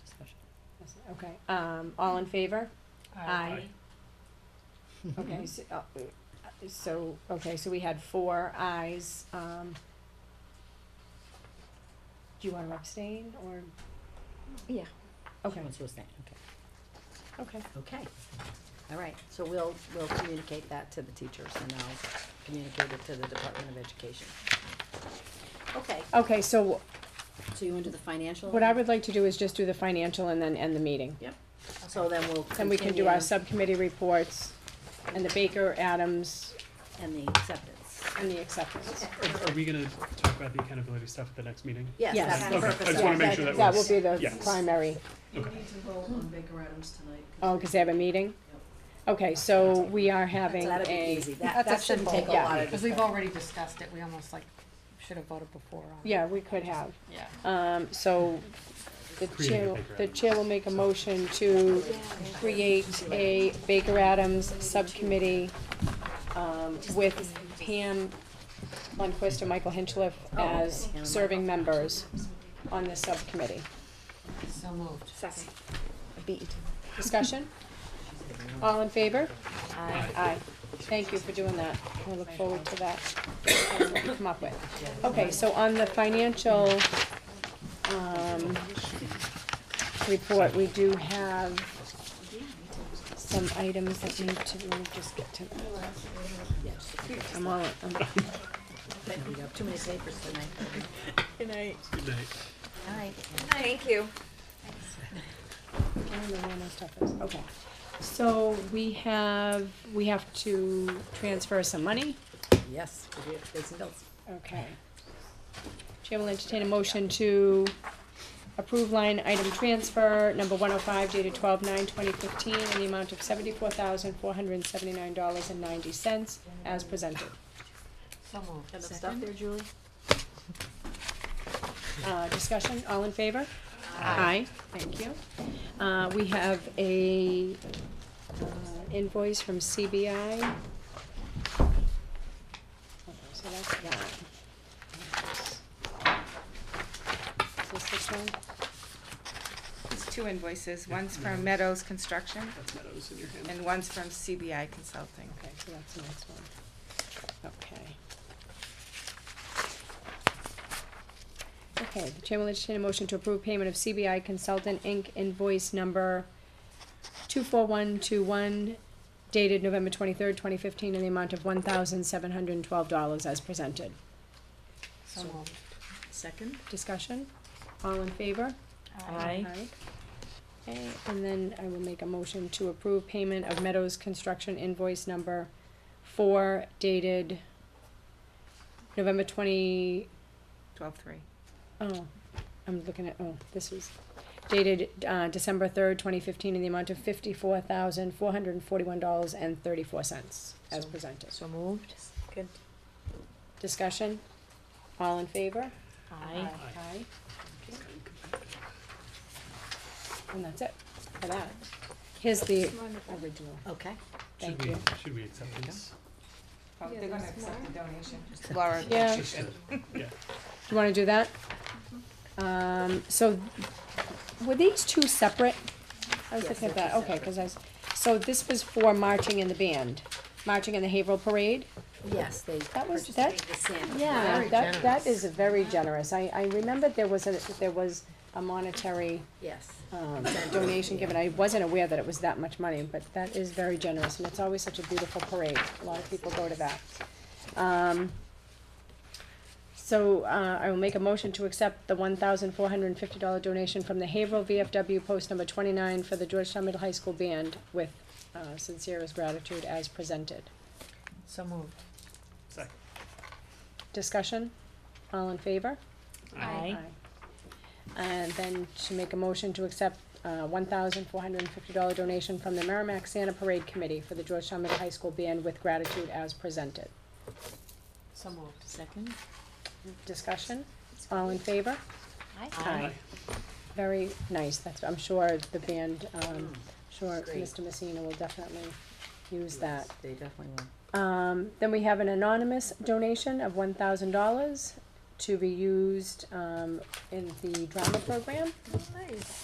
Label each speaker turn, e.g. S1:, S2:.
S1: Okay, um, all in favor?
S2: Aye.
S3: Mm-hmm.
S1: Okay, so, uh, so, okay, so we had four ayes, um. Do you wanna abstain or,
S3: Yeah. Mm-hmm. She
S1: okay,
S3: wants to abstain, okay,
S1: okay,
S3: okay. All right, so we'll, we'll communicate that to the teachers and I'll communicate it to the Department of Education. Okay,
S1: okay, so
S3: so you want to do the financial?
S1: what I would like to do is just do the financial and then end the meeting.
S3: So then we'll
S1: Then we can do our
S3: continue
S1: subcommittee reports and the Baker, Adams,
S3: And the acceptance.
S1: and the acceptance.
S2: Are are we gonna talk about the accountability stuff at the next meeting?
S3: Yes,
S1: Yes.
S3: that's the
S2: Okay, I
S3: purpose.
S2: just wanna
S3: of
S2: make
S3: it.
S2: sure that
S1: That will
S2: was-
S1: be the
S2: yes.
S1: primary,
S4: You
S2: Okay.
S4: need to vote on Baker Adams tonight.
S1: oh, cause they have a meeting? Okay, so we are having
S3: So
S1: a.
S3: That'll be easy, that,
S5: That's
S3: that
S5: a
S3: shouldn't take a
S5: simple-
S1: yeah.
S3: lot of
S5: Cause we've
S3: discussion.
S5: already discussed it, we almost like should have voted before on it.
S1: Yeah, we could have.
S5: Yeah.
S1: Um, so the
S2: Creating a
S1: chair,
S2: Baker
S1: the
S2: Adams.
S1: chair will make a motion to create a Baker Adams subcommittee, um, with Pam Lundquist and Michael Hinchliff as
S3: Oh, okay.
S1: serving members on the subcommittee.
S5: So moved. Second.
S1: Discussion? All in favor? Aye. Thank you for doing that. I look forward to that. That's what we Come up with. Okay, so on the financial, um, report, we do have some items that need to, let me just get to,
S3: Yes.
S1: I'm all, Um, I'm,
S3: We got too many papers tonight.
S2: Good night.
S3: All right.
S6: Thank you.
S1: I don't know where my stuff is, okay. So we have, we have to transfer some money.
S3: Yes, we do. there's bills.
S1: Okay. Chair will entertain a motion to approve line item transfer number one oh five dated twelve nine twenty fifteen in the amount of seventy-four thousand four hundred and seventy-nine dollars and ninety cents as presented.
S5: So moved.
S3: Got enough stuff there, Julie?
S1: Uh, discussion, all in favor? Aye. thank you. Uh, we have a uh, invoice from CBI. Okay, So that's that. Is this this one?
S6: It's two invoices, one's from Meadows Construction
S2: That's Meadows in your hand.
S6: and one's from CBI Consulting.
S1: Okay, so that's the next one. Okay. Okay, the chair will entertain a motion to approve payment of CBI Consultant Inc. invoice number two four one two one dated November twenty-third, twenty fifteen, in the amount of one thousand seven hundred and twelve dollars as presented.
S5: So moved.
S3: Second?
S1: Discussion? All in favor?
S3: Aye.
S1: Okay, and then I will make a motion to approve payment of Meadows Construction invoice number four dated November twenty,
S6: Twelve-three.
S1: oh, I'm looking at, oh, this was dated, uh, December third, twenty fifteen, in the amount of fifty-four thousand, four hundred and forty-one dollars and thirty-four cents, as presented.
S3: So moved. Good.
S1: Discussion? All in favor?
S3: Aye.
S1: Aye. And that's it for that. Here's the original,
S3: Okay.
S1: thank
S2: Should we,
S1: you.
S2: should we accept this?
S6: Oh, they're gonna accept the donation. Laura.
S1: Yeah.
S2: Just to- Yeah.
S1: You wanna do that? Um, so, were these two separate? I was
S3: Yes,
S1: looking at
S3: they're
S1: that,
S3: two
S1: okay, cause I was, so this was for marching in the band, marching in the Haverhill Parade?
S3: Yes, they
S1: That was-
S3: purchased
S1: that-
S3: the sand.
S1: Yeah,
S5: Very
S1: that, that
S5: generous.
S1: is very generous, I, I remember there was a, there was a monetary,
S3: Yes.
S1: um, donation given, I wasn't aware that it was that much money, but that is very generous, and it's always such a beautiful parade, a lot of people go to that. Um, so, uh, I will make a motion to accept the one thousand four hundred and fifty dollar donation from the Haverhill VFW post number twenty-nine for the Georgetown Middle High School Band with, uh, sincerest gratitude as presented.
S5: So moved.
S2: Second.
S1: Discussion, all in favor?
S5: Aye.
S1: And then to make a motion to accept uh one thousand four hundred and fifty dollar donation from the Merrimack Santa Parade Committee for the Georgetown Middle High School Band with gratitude as presented.
S5: So moved.
S3: Second?
S1: Discussion, all in favor? Aye. Very nice, that's, I'm sure the band, um, sure
S3: Mm, Great.
S1: Mr. Messina will definitely use that.
S3: They definitely will.
S1: Um, then we have an anonymous donation of one thousand dollars to be used um in the drama program.